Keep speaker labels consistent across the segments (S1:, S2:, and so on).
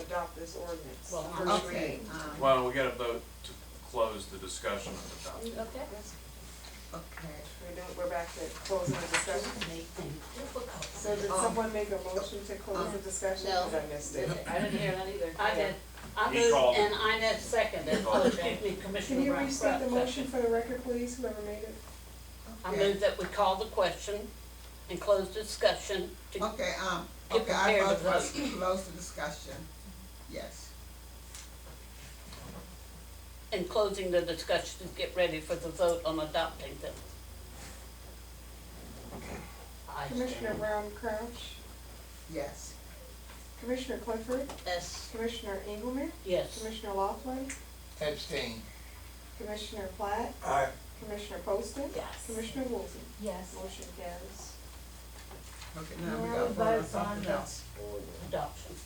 S1: adopt this ordinance,
S2: Well,
S1: first
S2: okay,
S1: reading.
S2: um,
S3: Well, we gotta vote to close the discussion of the document.
S4: Okay.
S1: Yes,
S2: Okay.
S1: We're doing, we're back to closing the discussion.
S5: Make things difficult.
S1: So did
S2: Um,
S1: someone make a motion to close the discussion?
S5: No.
S1: Because I missed it.
S4: I didn't hear that either.
S5: I did, I
S3: He
S5: moved
S3: called it.
S5: and I net seconded, oh, excuse me,
S1: Can
S5: Commissioner
S1: you
S5: Brown.
S1: restate the
S5: Brown
S1: motion
S5: seconded.
S1: for the record, please, whoever made it?
S5: I
S2: Okay.
S5: moved that we call the question and close discussion to,
S2: Okay, um,
S5: Get
S2: okay, I
S5: prepared
S2: vote
S5: to
S2: to close the discussion, yes.
S5: and closing the discussion to get ready for the vote on adopting them. I
S1: Commissioner
S5: stand.
S1: Brown Crouch,
S2: Yes.
S1: Commissioner Clifford,
S5: Yes,
S1: Commissioner Engelmann,
S5: yes.
S1: Commissioner Laughlin,
S6: Abstain.
S1: Commissioner Platt,
S6: Aye.
S1: Commissioner Poston,
S5: Yes.
S1: Commissioner Woolsey.
S4: Yes.
S1: Motion carries.
S2: Okay, now we
S4: Now
S2: gotta
S4: we
S2: vote on
S4: vote on
S2: something
S4: the-
S2: else.
S5: Adoption.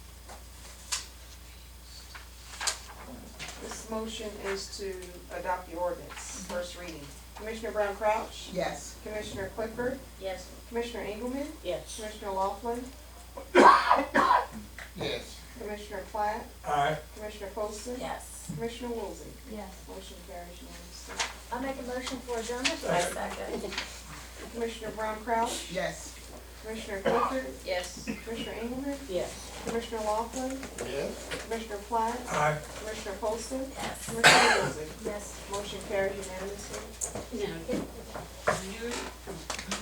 S1: This motion is to adopt the ordinance, first reading. Commissioner Brown Crouch,
S2: Yes,
S1: Commissioner Clifford,
S5: Yes.
S1: Commissioner Engelmann,
S5: Yes.
S1: Commissioner Laughlin,
S6: Yes.
S1: Commissioner Platt,
S6: Aye.
S1: Commissioner Poston,
S4: Yes.
S1: Commissioner Woolsey.
S4: Yes.
S1: Motion carries unanimously.
S4: I make a motion for adjournment, I second.
S1: Commissioner Brown Crouch,
S2: yes.
S1: Commissioner Clifford,
S5: Yes.
S1: Commissioner Engelmann,
S5: Yes.
S1: Commissioner Laughlin,
S6: Yes.
S1: Commissioner Platt,
S6: Aye.
S1: Commissioner Poston,
S4: Yes.
S1: Commissioner Woolsey.
S4: Yes.
S1: Motion carries unanimously.
S5: Now, you